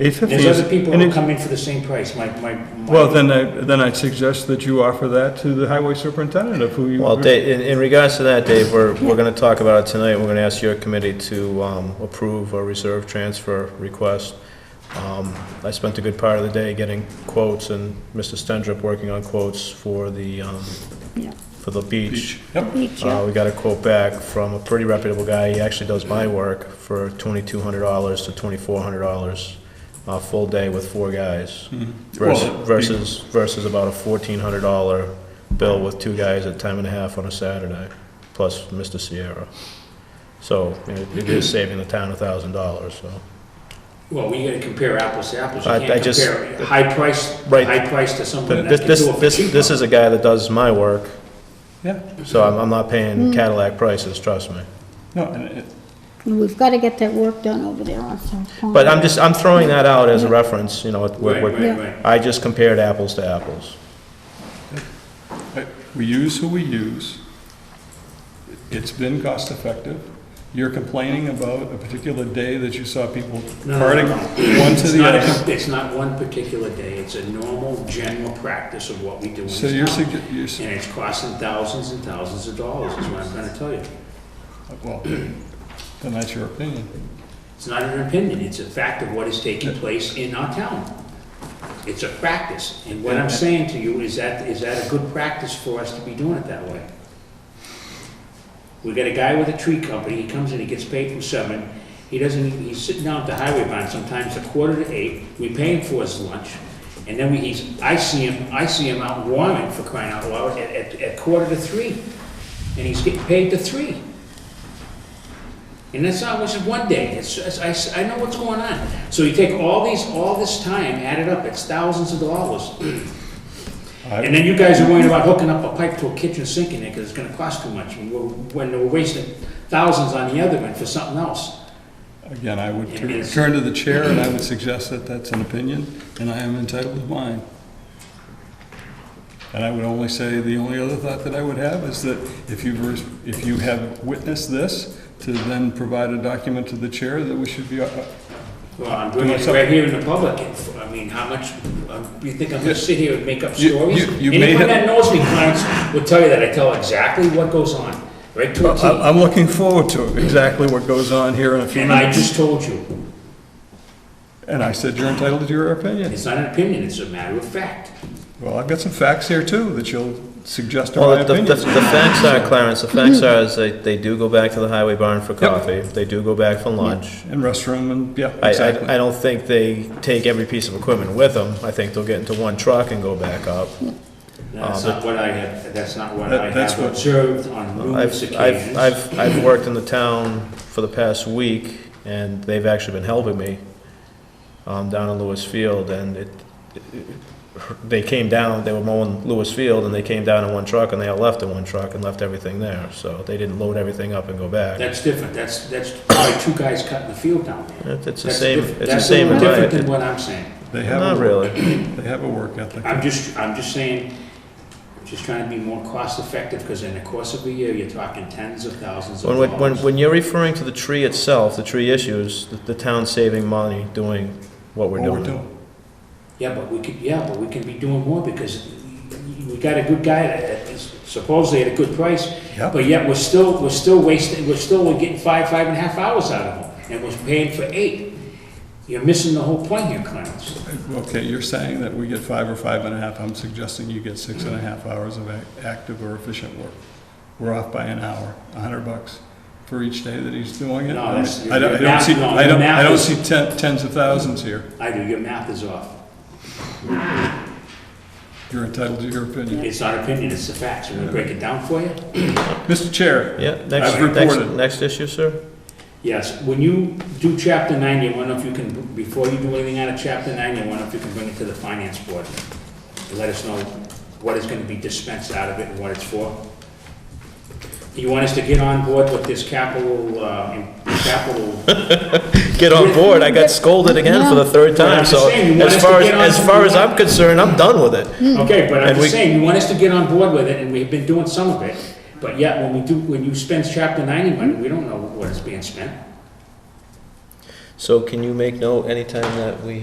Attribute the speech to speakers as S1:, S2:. S1: Eight fifty
S2: There's
S1: is.
S2: other people
S1: and
S2: who
S1: it-
S2: come in for the same price, my, my. my-
S1: Well, then I, then I'd suggest that you offer that to the highway superintendent of who you.
S3: Well, Dave, in, in regards to that, Dave, we're, we're gonna talk about it tonight, we're gonna ask your committee to, um, approve a reserve transfer request. Um, I spent a good part of the day getting quotes and Mr. Stendrop working on quotes for the, um,
S4: Yeah.
S3: for the beach.
S4: Beach,
S3: Uh,
S4: yeah.
S3: we got a quote back from a pretty reputable guy, he actually does my work, for twenty-two hundred dollars to twenty-four hundred dollars, a full day with four guys. Versus,
S1: Well,
S3: versus, versus about a fourteen hundred dollar bill with two guys at time and a half on a Saturday, plus Mr. Sierra. So, it it is saving the town a thousand dollars, so.
S2: Well, we gotta compare apples to apples, you
S3: I- I
S2: can't
S3: just-
S2: compare high price,
S3: Right.
S2: high price to someone
S3: But
S2: that
S3: this,
S2: can do it
S3: this,
S2: for
S3: this,
S2: cheaper.
S3: this is a guy that does my work,
S1: Yeah,
S3: so I'm, I'm not paying Cadillac prices, trust me.
S1: no, and it-
S4: And we've got to get that work done over there on South Pond.
S3: But I'm just, I'm throwing that out as a reference, you know, it-
S2: Right,
S3: we're,
S2: right,
S3: we're-
S2: right.
S3: I just compared apples to apples.
S1: I- we use who we use. It's been cost effective. You're complaining about a particular day that you saw people
S2: No, no,
S1: parting
S2: no.
S1: one to
S2: It's
S1: the
S2: not a-
S1: other.
S2: It's not one particular day, it's a normal, general practice of what we do in this
S1: So you're
S2: town.
S1: sugge- you're, s-
S2: And it's costing thousands and thousands of dollars, is what I'm trying to tell you.
S1: well, then that's your opinion.
S2: It's not an opinion, it's a fact of what is taking place in our town. It's a practice, and what I'm saying to you is that, is that a good practice for us to be doing it that way? We got a guy with a tree company, he comes in, he gets paid from seven, he doesn't, he's sitting down at the highway barn sometimes a quarter to eight, we pay him for his lunch, and then we, he's, I see him, I see him out warming for crying out loud at, at, at quarter to three, and he's getting paid to three. And that's not, which is one day, it's, it's- I, s- I know what's going on. So you take all these, all this time, add it up, it's thousands of dollars. And then you guys are worrying about hooking up a pipe to a kitchen sink in there, because it's gonna cost too much, and we're, when we're wasting thousands on the other end for something else.
S1: Again, I would
S2: It
S1: tur-
S2: is.
S1: turn to the chair and I would suggest that that's an opinion and I am entitled to mine. And I would only say, the only other thought that I would have is that if you've, res- if you have witnessed this, to then provide a document to the chair that we should be, uh,
S2: Well, I'm doing it right here in the public, and f- I mean, how much, um, you think I'm gonna sit here and make up
S1: You-
S2: stories?
S1: you- you may have-
S2: Anyone that knows me, Clarence, will tell you that I tell exactly what goes on, right to a T.
S1: I'm I'm looking forward to exactly what goes on here in a few
S2: And I
S1: minutes.
S2: just told you,
S1: And I said, you're entitled to your opinion.
S2: it's not an opinion, it's a matter of fact.
S1: Well, I've got some facts here too that you'll suggest are my
S3: Well, the, the,
S1: opinions.
S3: the facts are, Clarence, the facts are is they, they do go back to the highway barn for coffee, they do go back for lunch.
S1: And restroom and, yeah,
S3: I,
S1: exactly.
S3: I, I don't think they take every piece of equipment with them, I think they'll get into one truck and go back up.
S2: That's
S3: Uh,
S2: not what I have, that's not what
S1: That-
S2: I
S1: that's
S2: have
S1: what-
S2: observed on numerous
S3: I've, I've,
S2: occasions.
S3: I've, I've worked in the town for the past week, and they've actually been helping me, um, down in Lewis Field, and it, they came down, they were mowing Lewis Field, and they came down in one truck, and they all left in one truck and left everything there, so they didn't load everything up and go back.
S2: That's different, that's, that's probably two guys cutting the field down there.
S3: It- It's the
S2: That's
S3: same,
S2: diff-
S3: it's the
S2: that's
S3: same
S2: a little Different than
S3: environment.
S2: what I'm saying.
S1: They have
S3: Not
S1: a,
S3: really,
S1: they have a work ethic.
S2: I'm just, I'm just saying, I'm just trying to be more cost effective, because in the course of a year, you're talking tens of thousands of
S3: when, when- when,
S2: dollars.
S3: when you're referring to the tree itself, the tree issues, the, the town's saving money doing what we're
S1: What we're
S3: doing.
S1: doing.
S2: Yeah, but we could, yeah, but we can be doing more, because we got a good guy that is supposedly at a good price,
S1: Yep.
S2: but yet we're still, we're still wasting, we're still, we're getting five, five and a half hours out of him, and we're paying for eight. You're missing the whole point here, Clarence.
S1: Okay, you're saying that we get five or five and a half, I'm suggesting you get six and a half hours of ac- active or efficient work. We're off by an hour, a hundred bucks for each day that he's doing it.
S2: No,
S1: I mean,
S2: that's-
S1: I don't, I don't see,
S2: no,
S1: I don't, I
S2: math
S1: don't
S2: is-
S1: see ten- tens of thousands here.
S2: I do, your math is off.
S1: You're entitled to your opinion.
S2: It's not opinion, it's the facts. I'm gonna break it down for you.
S1: Mr. Chair,
S3: Yeah, next,
S1: I've
S3: next,
S1: reported.
S3: next issue, sir?
S2: Yes, when you do chapter nine, you wonder if you can, before you do anything out of chapter nine, you wonder if you can bring it to the finance board. and Let us know what is gonna be dispensed out of it and what it's for. You want us to get on board with this capital, uh, in- capital
S3: get on board. I got scolded again for the third
S2: But I'm
S3: time, so
S2: saying, you want us
S3: as
S2: to
S3: far as,
S2: get on
S3: as
S2: to
S3: far as
S2: what-
S3: I'm concerned, I'm done with it.
S2: Okay, but I'm
S3: And
S2: just
S3: we-
S2: saying, you want us to get on board with it, and we've been doing some of it, but yet, when we do, when you spend chapter ninety money, we don't know what is being spent.
S3: So can you make note anytime that we